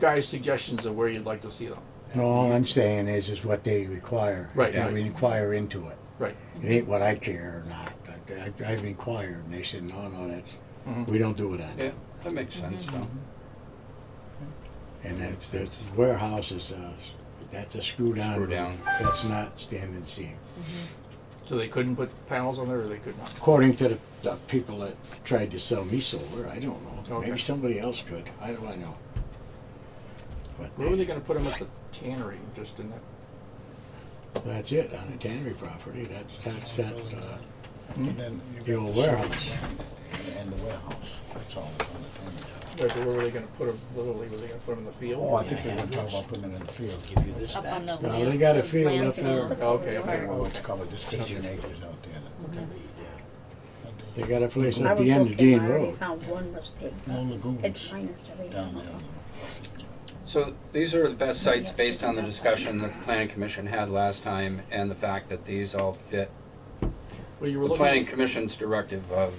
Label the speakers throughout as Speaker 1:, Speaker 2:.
Speaker 1: guys suggestions of where you'd like to see them.
Speaker 2: And all I'm saying is, is what they require.
Speaker 1: Right,
Speaker 2: If you
Speaker 1: right.
Speaker 2: inquire into it.
Speaker 1: Right.
Speaker 2: It ain't what I care or not. but I- I've inquired, and they said, no, no, that's,
Speaker 1: Mhm.
Speaker 2: we don't do it on
Speaker 3: Yeah,
Speaker 2: that.
Speaker 3: that makes sense though.
Speaker 2: And that, the warehouse is, uh, that's a screw down.
Speaker 3: Screw
Speaker 2: roof.
Speaker 3: down.
Speaker 2: That's not standing seam.
Speaker 1: So they couldn't put panels on there, or they could not.
Speaker 2: According to the, the people that tried to sell me solar, I don't know. Maybe
Speaker 1: Okay.
Speaker 2: somebody else could. How do I know? But
Speaker 1: Where were they going to put them at the tannery? Just in that.
Speaker 2: That's it, on the tannery property. That's, that's, that, uh,
Speaker 4: And then you
Speaker 2: the
Speaker 4: get
Speaker 2: old
Speaker 4: the
Speaker 2: warehouse.
Speaker 4: service and the warehouse, that's all that's on the tender.
Speaker 1: Right, but where were they going to put them? Literally, were they going to put them in the field?
Speaker 4: Oh, I think they're gonna talk about putting it in the field. Give you this
Speaker 5: Up on the
Speaker 2: No,
Speaker 5: land-
Speaker 2: they got a
Speaker 5: the
Speaker 2: field
Speaker 5: land
Speaker 2: up
Speaker 5: field.
Speaker 2: there.
Speaker 1: Okay, okay.
Speaker 4: Well, it's covered, there's fifteen acres out there. that- that
Speaker 2: They
Speaker 4: they-
Speaker 2: got a place
Speaker 6: I
Speaker 2: at
Speaker 6: was
Speaker 2: the end of
Speaker 6: looking,
Speaker 2: Dean
Speaker 6: I already
Speaker 2: Road.
Speaker 6: found one was taken.
Speaker 4: No
Speaker 6: It's
Speaker 4: lagoons
Speaker 6: minor to read.
Speaker 4: down there.
Speaker 3: So these are the best sites based on the discussion that the planning commission had last time and the fact that these all fit
Speaker 1: Well, you were
Speaker 3: the
Speaker 1: looking.
Speaker 3: planning commission's directive of,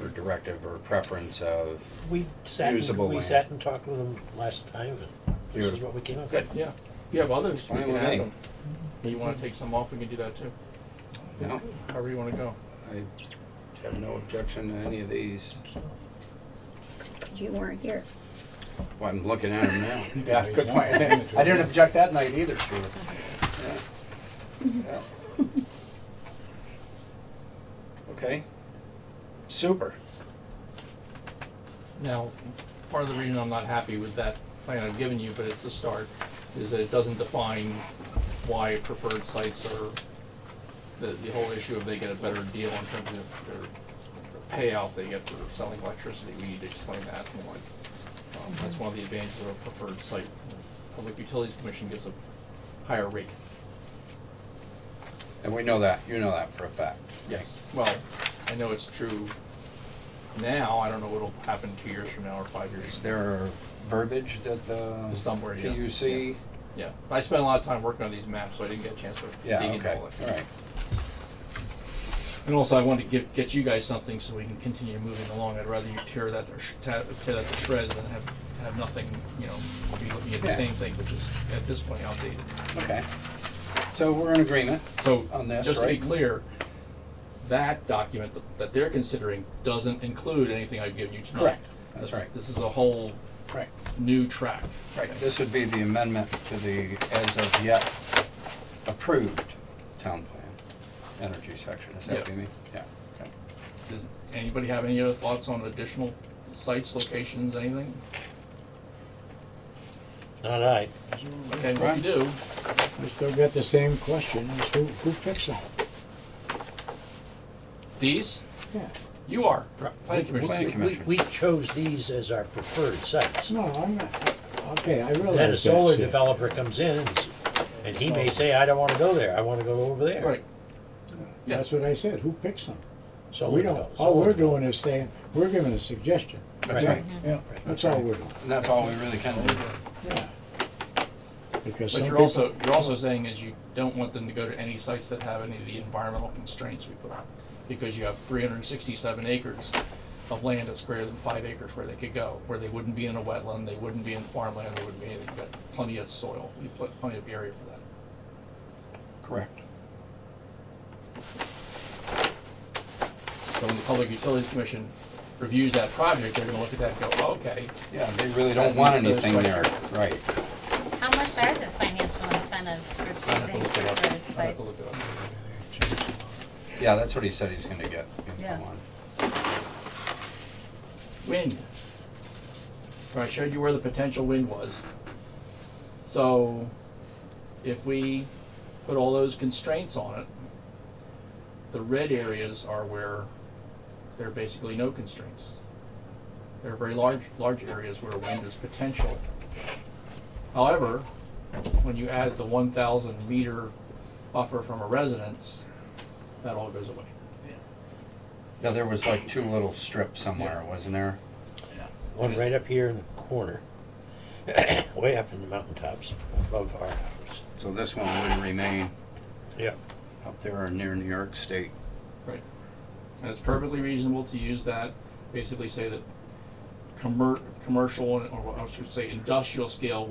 Speaker 3: or directive or preference of,
Speaker 7: We sat, and-
Speaker 3: Usable
Speaker 7: we
Speaker 3: land.
Speaker 7: sat and talked with them last time, and this is
Speaker 3: Beautiful.
Speaker 7: what we came up with.
Speaker 3: good,
Speaker 1: Yeah, you have others. We
Speaker 3: Fine
Speaker 1: can
Speaker 3: with
Speaker 1: ask
Speaker 3: me.
Speaker 1: them. You want to take some off? We can do that too.
Speaker 3: no,
Speaker 1: However you want to go.
Speaker 3: I have no objection to any of these.
Speaker 6: You weren't here.
Speaker 3: Well, I'm looking at them now.
Speaker 4: You can
Speaker 3: Yeah,
Speaker 4: raise
Speaker 3: good
Speaker 4: them.
Speaker 3: point. I didn't object that night either, Stuart. Yeah. Yeah. Okay, super.
Speaker 1: Now, part of the reason I'm not happy with that plan I've given you, but it's a start, is that it doesn't define why preferred sites are, the, the whole issue of they get a better deal in terms of their their payout they get for selling electricity, we need to explain that more. Um, That's one of the advantages of a preferred site. Public Utilities Commission gives a higher rate.
Speaker 3: And we know that, you know that for a fact.
Speaker 1: Yes. Well, I know it's true now, I don't know what'll happen two years from now or five years
Speaker 3: Is there verbiage that the?
Speaker 1: Somewhere, yeah.
Speaker 3: PUC?
Speaker 1: Yeah, I spent a lot of time working on these maps, so I didn't get a chance to dig
Speaker 3: Yeah,
Speaker 1: into
Speaker 3: okay,
Speaker 1: all
Speaker 3: all
Speaker 1: that.
Speaker 3: right.
Speaker 1: And also, I wanted to give, get you guys something so we can continue moving along. I'd rather you tear that, or sh- ta- tear that to shreds than have, have nothing, you know, be looking at the
Speaker 3: Yeah.
Speaker 1: same thing, which is at this point outdated.
Speaker 3: Okay. So we're in agreement.
Speaker 1: So,
Speaker 3: On this,
Speaker 1: just to be
Speaker 3: right?
Speaker 1: clear, that document th- that they're considering doesn't include anything I've given you tonight.
Speaker 3: Correct. That's
Speaker 1: This-
Speaker 3: right.
Speaker 1: This is a whole
Speaker 3: Right.
Speaker 1: new track.
Speaker 3: Right, this would be the amendment to the as of yet approved town plan, energy section, is that what you
Speaker 1: Yeah.
Speaker 3: mean? Yeah, okay.
Speaker 1: Does anybody have any other thoughts on additional sites, locations, anything?
Speaker 7: Not I.
Speaker 1: Okay, well, if you do,
Speaker 2: I still got the same question, is who, who picks them?
Speaker 1: these,
Speaker 2: Yeah,
Speaker 1: you are. Planning
Speaker 7: We-
Speaker 1: Commission.
Speaker 3: Planning
Speaker 7: we-
Speaker 3: Commission.
Speaker 7: We chose these as our preferred sites.
Speaker 2: no, I'm not, okay, I realize
Speaker 7: Then a
Speaker 2: that's
Speaker 7: solar
Speaker 2: it.
Speaker 7: developer comes in, and s- and he may say, I don't wanna go there, I wanna go over there.
Speaker 1: Right, yeah.
Speaker 2: That's what I said, who picks them?
Speaker 7: Solar
Speaker 2: We don't,
Speaker 7: devel-
Speaker 2: all
Speaker 7: solar
Speaker 2: we're
Speaker 7: develop-
Speaker 2: doing is saying, we're giving a suggestion.
Speaker 3: That's
Speaker 7: Right.
Speaker 3: right,
Speaker 4: Yeah,
Speaker 2: That's all we're doing,
Speaker 3: and that's all we really can do.
Speaker 2: yeah. Because
Speaker 1: but
Speaker 2: some
Speaker 1: you're
Speaker 2: people,
Speaker 1: also, you're also saying is you don't want them to go to any sites that have any of the environmental constraints we put on. Because you have three hundred and sixty-seven acres of land that's greater than five acres where they could go, where they wouldn't be in a wetland, they wouldn't be in farmland, they wouldn't be, they've got plenty of soil, we put plenty of area for that.
Speaker 3: Correct.
Speaker 1: So when the Public Utilities Commission reviews that project, they're gonna look at that and go, "Oh, okay,
Speaker 3: Yeah, they really
Speaker 1: That
Speaker 3: don't want
Speaker 1: meets those
Speaker 3: anything there,
Speaker 1: criteria.
Speaker 3: right.
Speaker 5: How much are the financial incentives for
Speaker 1: I have to
Speaker 5: choosing
Speaker 1: look it up,
Speaker 5: preferred
Speaker 1: I have to look it
Speaker 5: sites?
Speaker 1: up.
Speaker 3: Yeah, that's what he said he's gonna get
Speaker 5: Yeah.
Speaker 3: info on.
Speaker 1: Wind. Or I showed you where the potential wind was. So if we put all those constraints on it, the red areas are where there are basically no constraints. There are very large, large areas where wind is potential. However, when you add the one thousand meter buffer from a residence, that all goes away.
Speaker 3: Yeah, there was like two little strips somewhere, wasn't there?
Speaker 7: One right up here in the corner, way up in the mountaintops above our house.
Speaker 3: So this one would remain
Speaker 7: Yeah.
Speaker 3: up there near New York State.
Speaker 1: Right. And it's perfectly reasonable to use that, basically say that commer- commercial, or I should say industrial scale